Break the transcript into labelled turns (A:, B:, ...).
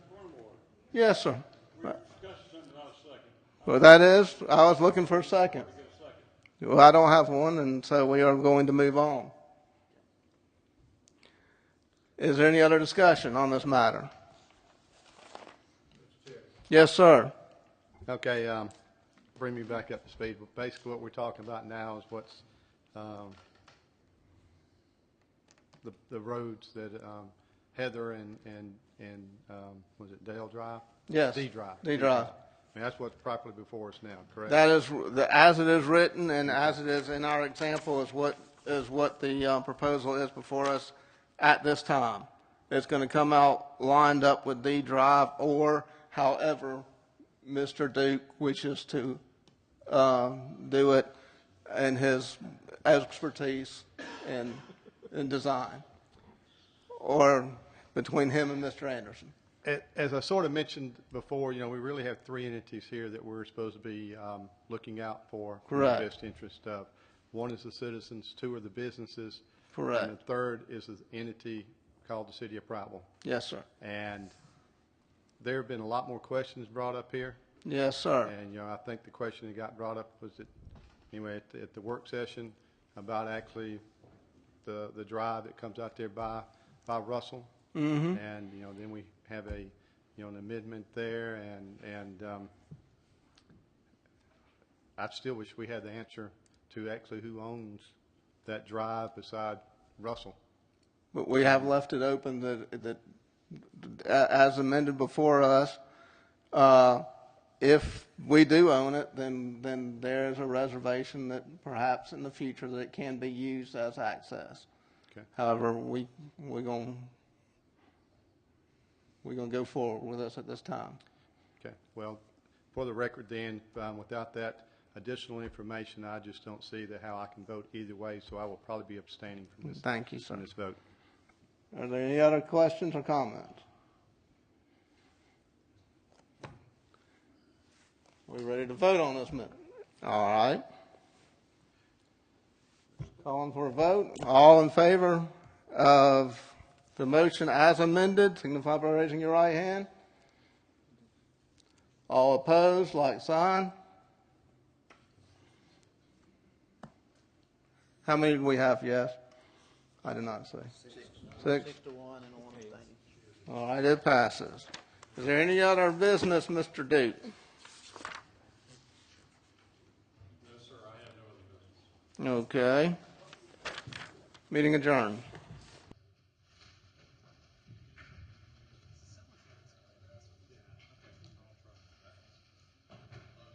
A: Yes, sir.
B: Discussed something about a second.
A: Well, that is, I was looking for a second.
B: Get a second.
A: Well, I don't have one, and so we are going to move on. Is there any other discussion on this matter? Yes, sir.
C: Okay, um, bring me back up to speed. But Basically, what we're talking about now is what's, um, the, the roads that, um, Heather and, and, and, um, was it Dale Drive?
A: Yes.
C: D Drive.
A: D Drive.
C: And that's what's properly before us now, correct?
A: That is, the- as it is written and as it is in our example is what, is what the uh, proposal is before us at this time. It's going to come out lined up with D Drive or however Mr. Duke wishes to uh, do it and his expertise in, in design. Or between him and Mr. Anderson.
C: A- As I sort of mentioned before, you know, we really have three entities here that we're supposed to be um, looking out for. in the
A: Correct.
C: Best interest of. One is the citizens, two are the businesses. And
A: Correct.
C: the third is the entity called the City of Prattville.
A: Yes, sir.
C: And there have been a lot more questions brought up here.
A: Yes, sir.
C: And, you know, I think the question that got brought up was that, anyway, at, the- at the work session about actually the, the drive that comes out there by, by Russell. And, you know, then we have a, you know, an amendment there and, and, um, I still wish we had the answer to actually who owns that drive beside Russell.
A: But we have left it open that, that, a- as amended before us, uh, if we do own it, then, then there is a reservation that perhaps in the future that it can be used as access.
C: Okay.
A: However, we, we're gonna, we're gonna go forward with this at this time.
C: Okay, well, for the record then, um, without that additional information, I just don't see that how I can vote either way, so I will probably be abstaining from this,
A: Thank you, sir.
C: from this vote.
A: Are there any other questions or comments? We ready to vote on this minute? All right. Calling for a vote. All in favor of the motion as amended, signify by raising your right hand. All opposed, like sign. How many do we have, yes? I did not see. Six.
D: Six to one and one abstaining.
A: All right, it passes. Is there any other business, Mr. Duke?
B: No, sir, I have no other business.
A: Okay. Meeting adjourned.